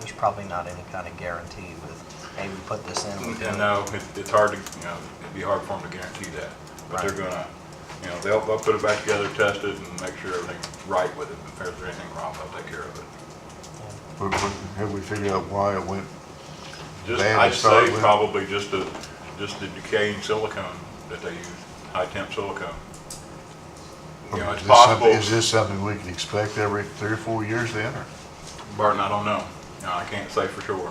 there's probably not any kind of guarantee with, hey, we put this in. we do And no, it- it's hard to, you know, it'd be hard for them to guarantee that. But they're Right. gonna, you know, they'll, they'll put it back together, test it, and make sure everything's right with it. If there's anything wrong, they'll take care of it. But- but Have we figured out why it went, Just, Band to I'd start say with. probably just the, just the decaying silicone that they use, high temp silicone. You know, is it's this something, possible, is this something we can expect every three or four years then, or? Barton, I don't know. No, I can't say for sure.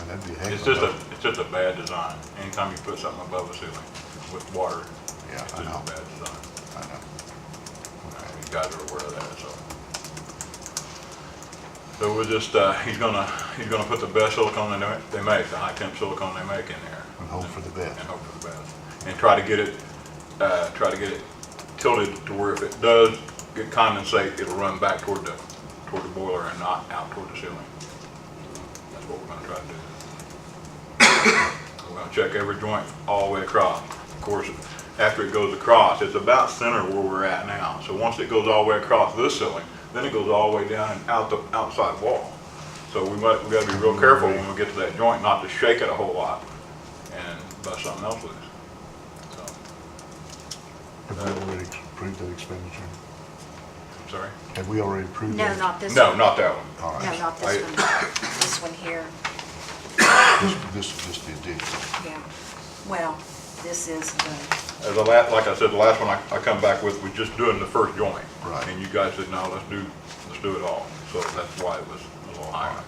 And that'd be a heck It's of just a, lot. it's just a bad design. Anytime you put something above a ceiling with water, Yeah, it's just I a know, bad design. I know. You guys are aware of that, so. So we're just, uh, he's gonna, he's gonna put the best silicone they ma- they make, the high temp silicone they make in there. And hope for the best. And hope for the best. And try to get it, uh, try to get it tilted to where if it does get condensate, it'll run back toward the, toward the boiler and not out toward the ceiling. That's what we're gonna try to do. We're gonna check every joint all the way across. Of course, after it goes across, it's about center where we're at now. So once it goes all the way across this ceiling, then it goes all the way down and out the outside wall. So we might, we gotta be real careful when we get to that joint not to shake it a whole lot and bust something else loose. So, Have we already approved that expenditure? I'm sorry? Have we already approved No, that? not this No, one. not that one. All No, right, not this one. This one here, this, this is just the addition. yeah. Well, this is the, As a la, like I said, the last one I, I come back with was just doing the first joint. Right. And you guys said, no, let's do, let's do it all. So that's why it was a little higher.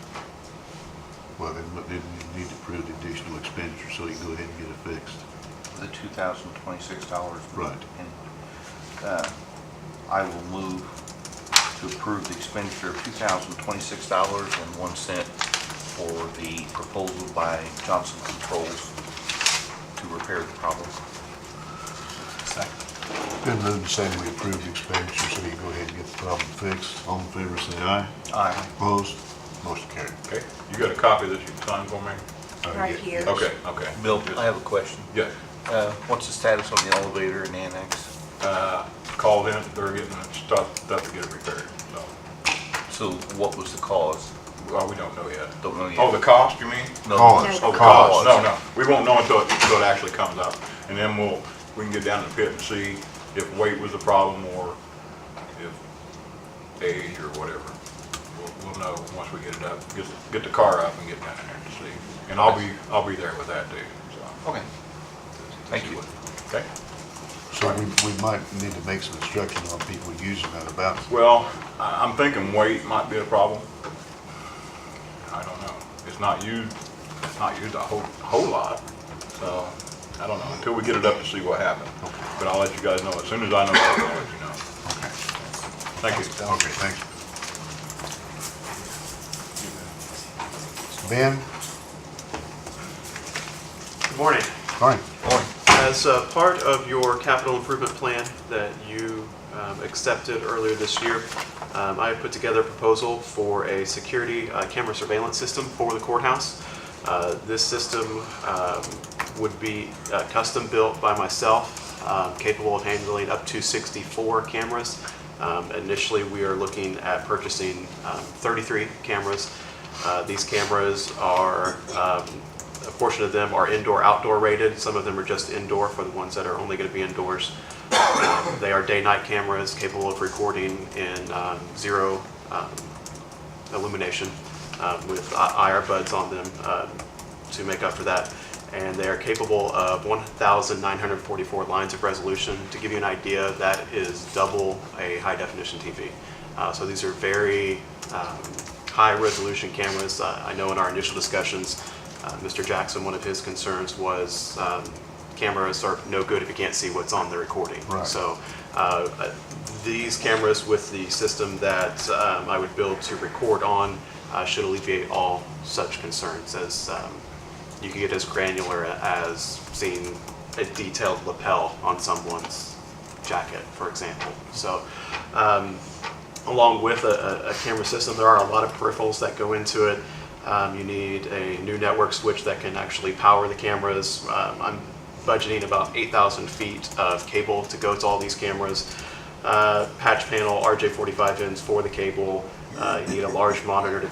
Well, then, but then you need to approve the additional expenditure, so you can go ahead and get it fixed. the two thousand twenty-six dollars. Right. And, uh, I will move to approve the expenditure of two thousand twenty-six dollars and one cent for the proposal by Johnson Controls to repair the problem. Been moved and seconded, we approve the expenditure, so you can go ahead and get the problem fixed. All in favor, say aye. Aye. Opposed? Motion carried. Okay, you got a copy that you can sign for me? Oh, right yeah. here. Okay, okay. Bill, Just- I have a question. Yes, Uh, what's the status on the elevator and annex? uh, called in, they're getting stuff, stuff to get it repaired, so, So what was the cause? well, we don't know yet. Don't know yet. Oh, the cost, you mean? No. Cause, Oh, the cost, cause. no, no, we won't know until, it- until it actually comes up, and then we'll, we can get down to the pit and see if weight was the problem, or if age or whatever. We'll, we'll know once we get it up, get, get the car up and get down in there to see, and I'll be, I'll be there with that too, so. Okay. Thank you. Okay? So we, we might need to make some instruction on people using that about, Well, I- I'm thinking weight might be a problem. I don't know. It's not used, it's not used a whole, whole lot, so I don't know, until we get it up to see what happens. But I'll let you guys know, as soon as I know, I'll let you know. Thank you. okay, thanks. Ben, Good morning. fine. As uh, part of your capital improvement plan that you um, accepted earlier this year, um, I put together a proposal for a security uh, camera surveillance system for the courthouse. Uh, This system um, would be uh, custom built by myself, um, capable of handling up to 64 cameras. Um, Initially, we are looking at purchasing um, 33 cameras. Uh, These cameras are um, a portion of them are indoor, outdoor rated. Some of them are just indoor for the ones that are only going to be indoors. Um, They are day-night cameras capable of recording in um, zero um, illumination um, with I- IR buds on them um, to make up for that. And they are capable of 1,944 lines of resolution. To give you an idea, that is double a high-definition TV. Uh, So these are very um, high-resolution cameras. Uh, I know in our initial discussions, uh, Mr. Jackson, one of his concerns was um, cameras are no good if you can't see what's on the recording. Right. So so uh, uh, these cameras with the system that um, I would build to record on uh, should alleviate all such concerns as um, you can get as granular as seeing a detailed lapel on someone's jacket, for example. So um, along with a, a- a camera system, there are a lot of peripherals that go into it. Um, you need a new network switch that can actually power the cameras. Um, I'm budgeting about 8,000 feet of cable to go to all these cameras. Uh, patch panel, RJ45 ends for the cable. Uh, you need a large monitor to